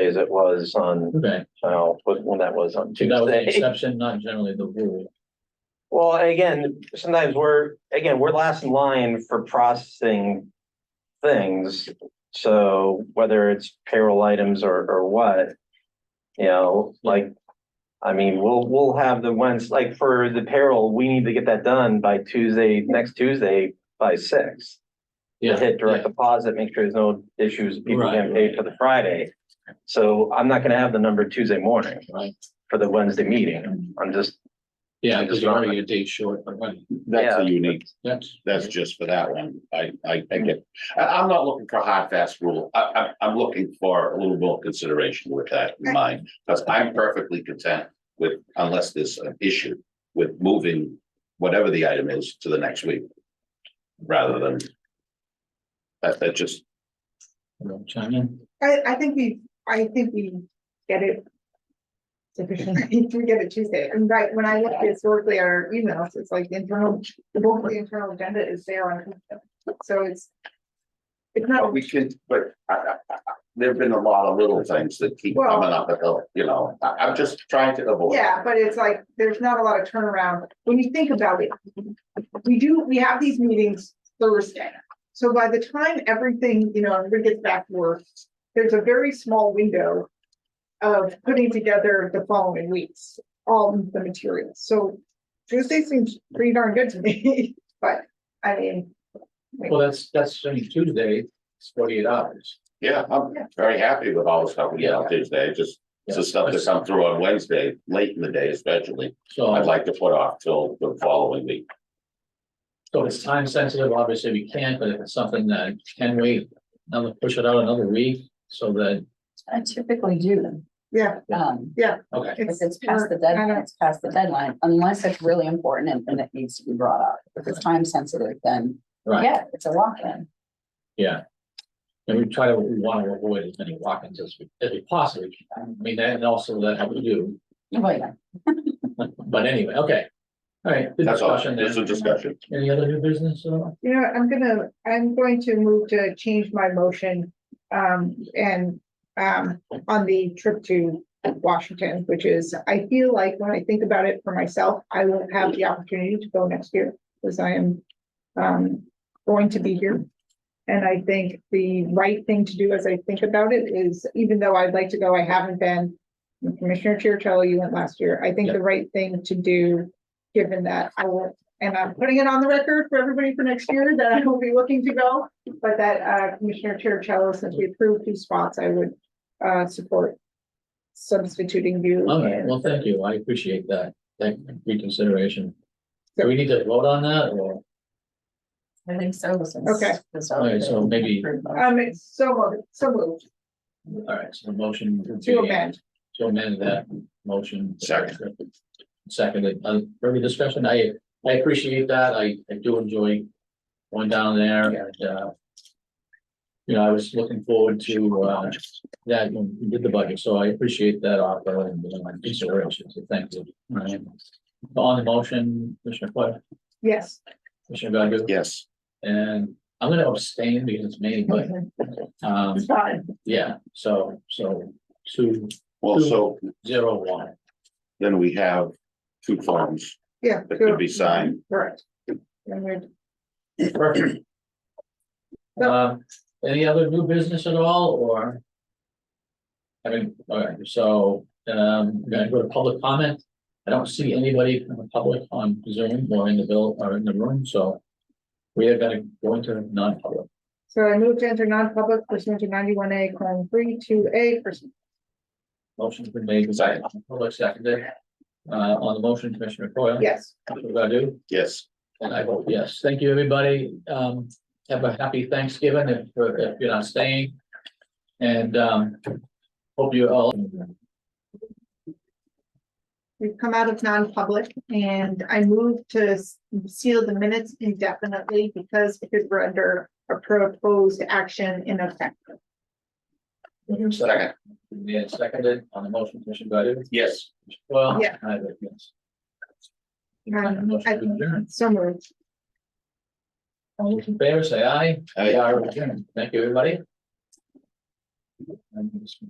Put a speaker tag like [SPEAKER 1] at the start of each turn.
[SPEAKER 1] as it was on,
[SPEAKER 2] Okay,
[SPEAKER 1] uh, when that was on
[SPEAKER 2] so that was
[SPEAKER 1] Tuesday.
[SPEAKER 2] an exception, not generally the rule.
[SPEAKER 1] Well, again, sometimes we're, again, we're last in line for processing things. So whether it's payroll items or, or what, you know, like, I mean, we'll, we'll have the ones, like for the payroll, we need to get that done by Tuesday, next Tuesday by six.
[SPEAKER 2] Yeah,
[SPEAKER 1] Hit direct
[SPEAKER 2] yeah.
[SPEAKER 1] deposit, make sure there's no issues, people
[SPEAKER 2] Right,
[SPEAKER 1] getting paid for the Friday. So I'm not gonna have the number Tuesday morning
[SPEAKER 2] Right,
[SPEAKER 1] for the Wednesday meeting. I'm just,
[SPEAKER 2] yeah, because you're already a day short, but right,
[SPEAKER 3] That's a unique,
[SPEAKER 2] that's.
[SPEAKER 3] that's just for that one. I, I, I get, I, I'm not looking for a hard, fast rule. I, I, I'm looking for a little more consideration with that in mind. Because I'm perfectly content with, unless there's an issue with moving whatever the item is to the next week. Rather than. That, that just,
[SPEAKER 2] Well, Chime in,
[SPEAKER 4] I, I think we, I think we get it. Sufficiently, we get it Tuesday, and right, when I look historically at our emails, it's like the internal, the bulk of the internal agenda is there on. So it's. It's
[SPEAKER 3] but
[SPEAKER 4] not,
[SPEAKER 3] we can, but I, I, I, there've been a lot of little things that keep
[SPEAKER 4] Well-
[SPEAKER 3] coming up the hill, you know, I, I'm just trying to avoid.
[SPEAKER 4] yeah, but it's like, there's not a lot of turnaround, when you think about it. We do, we have these meetings Thursday, so by the time everything, you know, everybody gets back to work, there's a very small window. Of putting together the following weeks, all the materials, so Tuesday seems pretty darn good to me, but I mean.
[SPEAKER 2] well, that's, that's, I mean, Tuesday, it's forty-eight hours.
[SPEAKER 3] Yeah, I'm
[SPEAKER 4] Yeah.
[SPEAKER 3] very happy with all the stuff we get on Tuesday, just
[SPEAKER 2] Yeah.
[SPEAKER 3] the stuff that come through on Wednesday, late in the day especially. I'd
[SPEAKER 2] So,
[SPEAKER 3] like to put off till the following week.
[SPEAKER 2] so it's time sensitive, obviously we can't, but if it's something that can wait, another, push it out another week, so that,
[SPEAKER 5] I typically do them.
[SPEAKER 4] Yeah,
[SPEAKER 5] Um,
[SPEAKER 2] okay.
[SPEAKER 5] if
[SPEAKER 4] it's,
[SPEAKER 5] it's past the
[SPEAKER 4] I
[SPEAKER 5] deadline,
[SPEAKER 4] don't-
[SPEAKER 5] it's past the deadline, unless it's really important and then it needs to be brought up. If it's time sensitive, then
[SPEAKER 2] Right.
[SPEAKER 5] yeah, it's a lock-in.
[SPEAKER 2] Yeah. And we try to, we want to avoid as many walk-ins as we, as we possibly can. I mean, that and also that how we do,
[SPEAKER 5] Well, yeah.
[SPEAKER 2] but anyway, okay. All right. good
[SPEAKER 3] That's all,
[SPEAKER 2] discussion
[SPEAKER 3] it's a
[SPEAKER 2] then.
[SPEAKER 3] discussion.
[SPEAKER 2] Any other new business at all?
[SPEAKER 4] you know, I'm gonna, I'm going to move to change my motion. Um, and, um, on the trip to Washington, which is, I feel like when I think about it for myself, I will have the opportunity to go next year. Because I am, um, going to be here. And I think the right thing to do as I think about it is, even though I'd like to go, I haven't been. Commissioner Chercello, you went last year. I think the right thing to do, given that I will and I'm putting it on the record for everybody for next year that I will be looking to go. But that uh, Commissioner Chercello, since we approved two spots, I would uh, support substituting you.
[SPEAKER 2] All right, well, thank you. I appreciate that. Thank reconsideration. Do
[SPEAKER 4] Yep.
[SPEAKER 2] we need to vote on that or,
[SPEAKER 5] I think so. this is-
[SPEAKER 4] Okay.
[SPEAKER 5] this is-
[SPEAKER 2] Okay, so maybe-
[SPEAKER 4] Um, it's so moved, so moved.
[SPEAKER 2] all right, so the motion. would
[SPEAKER 4] To
[SPEAKER 2] be-
[SPEAKER 4] amend.
[SPEAKER 2] To amend that motion.
[SPEAKER 3] Second.
[SPEAKER 2] Seconded, uh, further discussion. I, I appreciate that. I, I do enjoy going down there and, uh. You know, I was looking forward to, uh, that when we did the budget, so I appreciate that offer and, you know, my consideration, so thank you. All right. On the motion, Commissioner Foil,
[SPEAKER 4] Yes.
[SPEAKER 2] Commissioner Godu?
[SPEAKER 3] Yes,
[SPEAKER 2] And I'm gonna abstain because it's me, but, um,
[SPEAKER 4] It's fine.
[SPEAKER 2] yeah, so, so two,
[SPEAKER 3] well, so
[SPEAKER 2] zero, one.
[SPEAKER 3] then we have two forms
[SPEAKER 4] Yeah.
[SPEAKER 3] that could be signed.
[SPEAKER 4] Correct. And we're-
[SPEAKER 2] Perfect. Um, any other new business at all, or? I mean, alright, so, um, we're gonna go to public comment. I don't see anybody from the public on Zoom or in the bill or in the room, so. We are gonna go into non-public.
[SPEAKER 4] So I moved to enter non-public pursuant to ninety-one A, colon, three, two, A, pursuant
[SPEAKER 2] Motion's been made, second, public seconded. Uh, on the motion, Commissioner Coyle?
[SPEAKER 4] yes.
[SPEAKER 2] Commissioner Godu?
[SPEAKER 3] Yes,
[SPEAKER 2] And I vote yes. Thank you, everybody. Um, have a happy Thanksgiving if, if you're not staying. And, um, hope you all.
[SPEAKER 4] We've come out of non-public and I move to s- seal the minutes indefinitely because because we're under a proposed action in effect.
[SPEAKER 3] second,
[SPEAKER 2] Yeah, seconded on the motion, Commissioner Godu.
[SPEAKER 3] yes.
[SPEAKER 2] Well.
[SPEAKER 4] Yeah.
[SPEAKER 2] I vote yes.
[SPEAKER 4] Um, I
[SPEAKER 2] Motion to adjourn.
[SPEAKER 4] So moved.
[SPEAKER 2] All those in favor, say aye.
[SPEAKER 3] Aye.
[SPEAKER 2] We are adjourned. Thank you, everybody. And this-